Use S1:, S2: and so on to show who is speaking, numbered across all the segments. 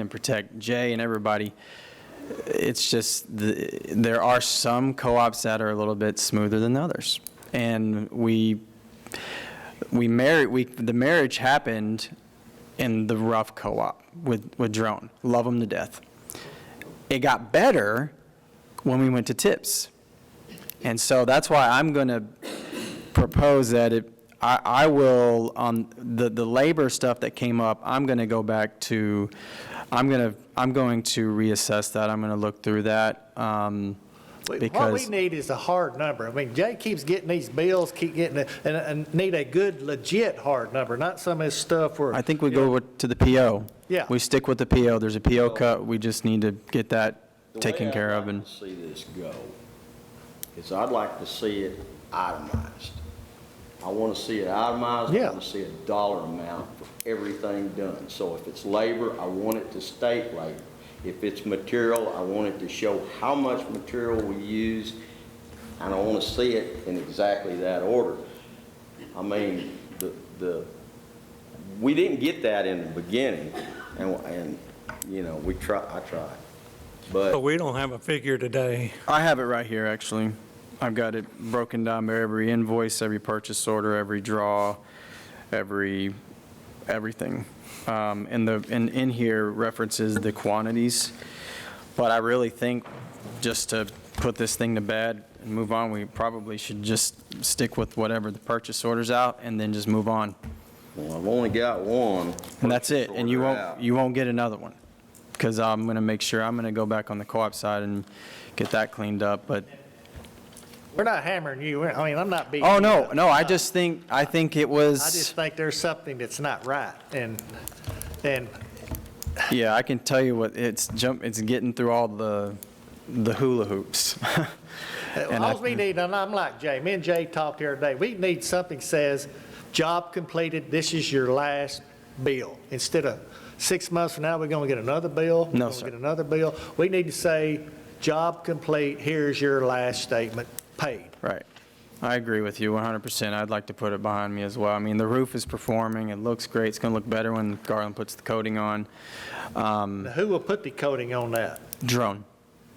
S1: and protect Jay and everybody. It's just, the- there are some co-ops that are a little bit smoother than others. And we, we married, we, the marriage happened in the rough co-op with, with Drone. Love them to death. It got better when we went to tips. And so that's why I'm going to propose that it, I, I will, on the, the labor stuff that came up, I'm going to go back to, I'm going to, I'm going to reassess that. I'm going to look through that. um,
S2: We- What we
S1: Because,
S2: need is a hard number. I mean, Jay keeps getting these bills, keep getting, it, and, and need a good legit hard number, not some of this stuff where.
S1: I think we go with- to the PO.
S2: Yeah.
S1: We stick with the PO. There's a PO cut. We just need to get that
S3: The way
S1: taken
S3: I'd
S1: care of
S3: like
S1: and.
S3: to See this go, is I'd like to see it itemized. I want to see it itemized.
S2: Yeah.
S3: I want to see a dollar amount for everything done. So if it's labor, I want it to state labor. If it's material, I want it to show how much material we use, and I want to see it in exactly that order. I mean, the, the, we didn't get that in the beginning, and, and, you know, we try, I tried. But
S4: But we don't have a figure today.
S1: I have it right here, actually. I've got it broken down by every invoice, every purchase order, every draw, every, everything. Um, And the, and in here references the quantities. But I really think, just to put this thing to bed and move on, we probably should just stick with whatever the purchase order's out and then just move on.
S3: Well, I've only got one.
S1: And that's it, and you
S3: Order out.
S1: won't, you won't get another one. Because I'm going to make sure, I'm going to go back on the co-op side and get that cleaned up, but
S2: We're not hammering you. We're- I mean, I'm not beating.
S1: Oh,
S2: you
S1: no,
S2: up.
S1: no, I just think, I think it
S2: I just
S1: was,
S2: think there's something that's not right, and, and
S1: yeah, I can tell you what, it's jump, it's getting through all the, the hula hoops. And I-
S2: All we need, and I'm like Jay, me and Jay talked the other day, we need something that says, job completed, this is your last bill. Instead of six months from now, we're going to get another bill. we're
S1: No,
S2: gonna
S1: sir.
S2: Get another bill. We need to say, job complete, here's your last statement, paid.
S1: Right. I agree with you 100%. I'd like to put it behind me as well. I mean, the roof is performing, it looks great, it's going to look better when Garland puts the coating on. Um,
S2: Now, who will put the coating on that?
S1: Drone,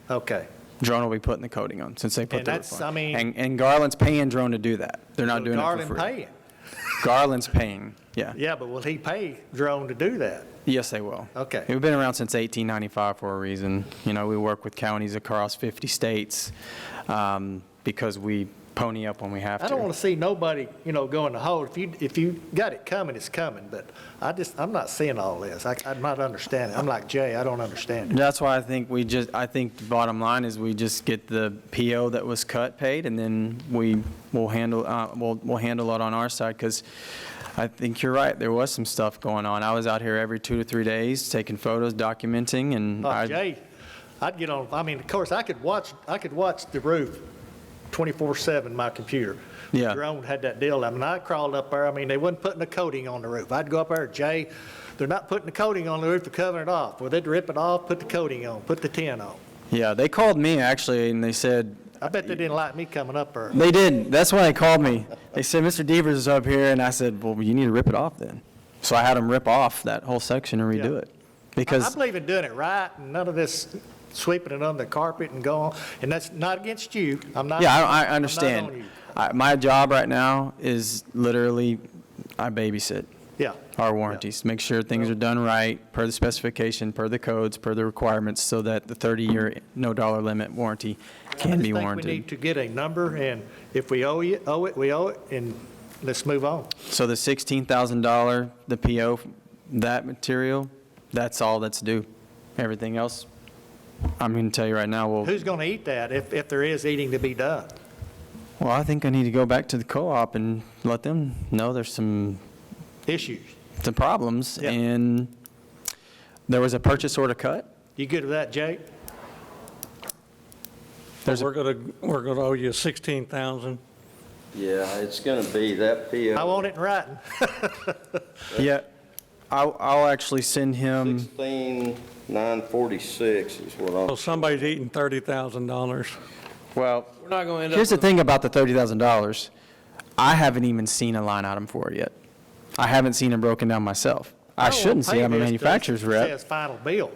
S2: Okay.
S1: Drone will be putting the coating on since they put
S2: And
S1: the
S2: that's-
S1: roof
S2: I
S1: on.
S2: mean-
S1: And, and Garland's paying Drone to do that. They're not doing it for
S2: Garland
S1: free.
S2: paying.
S1: Garland's paying, yeah.
S2: Yeah, but will he pay Drone to do that?
S1: Yes, they will.
S2: Okay.
S1: We've been around since 1895 for a reason. You know, we work with counties across 50 states um, because we pony up when we have to.
S2: I don't want to see nobody, you know, go in the hole. If you, if you got it coming, it's coming, but I just, I'm not seeing all this. I, I'm not understanding. I'm like Jay, I don't understand it.
S1: That's why I think we just, I think the bottom line is we just get the PO that was cut paid, and then we will handle, uh, we'll, we'll handle it on our side, because I think you're right, there was some stuff going on. I was out here every two to three days, taking photos, documenting, and
S2: Like
S1: I,
S2: Oh, Jay, I'd get on, I mean, of course, I could watch, I could watch the roof 24/7, my computer.
S1: Yeah.
S2: Drone had that deal. I mean, I crawled up there. I mean, they wasn't putting a coating on the roof. I'd go up there, Jay, they're not putting the coating on the roof, they're covering it off. Well, they'd rip it off, put the coating on, put the tin on.
S1: yeah, they called me, actually, and they said,
S2: I bet they didn't like me coming up there.
S1: They didn't. That's why they called me. They said, Mr. Devers is up here, and I said, well, you need to rip it off then. So I had them rip off that whole section and redo
S2: Yeah.
S1: it.
S2: I
S1: Because,
S2: believe in doing it right, and none of this sweeping it under the carpet and going, and that's not against you, I'm not.
S1: yeah, I, I
S2: I'm not on
S1: understand.
S2: you.
S1: I, my job right now is literally, I babysit
S2: Yeah,
S1: our warranties, make sure things are done right, per the specification, per the codes, per the requirements, so that the 30-year, no-dollar limit warranty
S2: I
S1: can be
S2: just think we need
S1: warranted.
S2: to get a number, and if we owe you, owe it, we owe it, and let's move on.
S1: So the $16,000, the PO, that material, that's all that's due. Everything else, I'm going to tell you right now, well,
S2: Who's gonna eat that if, if there is eating to be done?
S1: well, I think I need to go back to the co-op and let them know there's some,
S2: Issues.
S1: some problems.
S2: Yeah.
S1: And there was a purchase order cut.
S2: You good with that, Jake?
S1: There's a-
S4: We're gonna, we're gonna owe you 16,000.
S3: Yeah, it's going to be that PO.
S2: I want it in writing.
S1: Yeah, I'll, I'll actually send him,
S3: 16,946 is what
S4: So
S3: I'm,
S4: somebody's eating $30,000.
S1: well,
S5: We're not going to end
S1: here's the
S5: up, with-
S1: thing about the $30,000. I haven't even seen a line item for it yet. I haven't seen it broken down myself. I
S2: don't wanna
S5: Oh,
S1: shouldn't see,
S2: pay
S1: I'm a
S2: this 'cause
S1: manufacturer's
S2: it
S1: rep.
S2: Says final bill.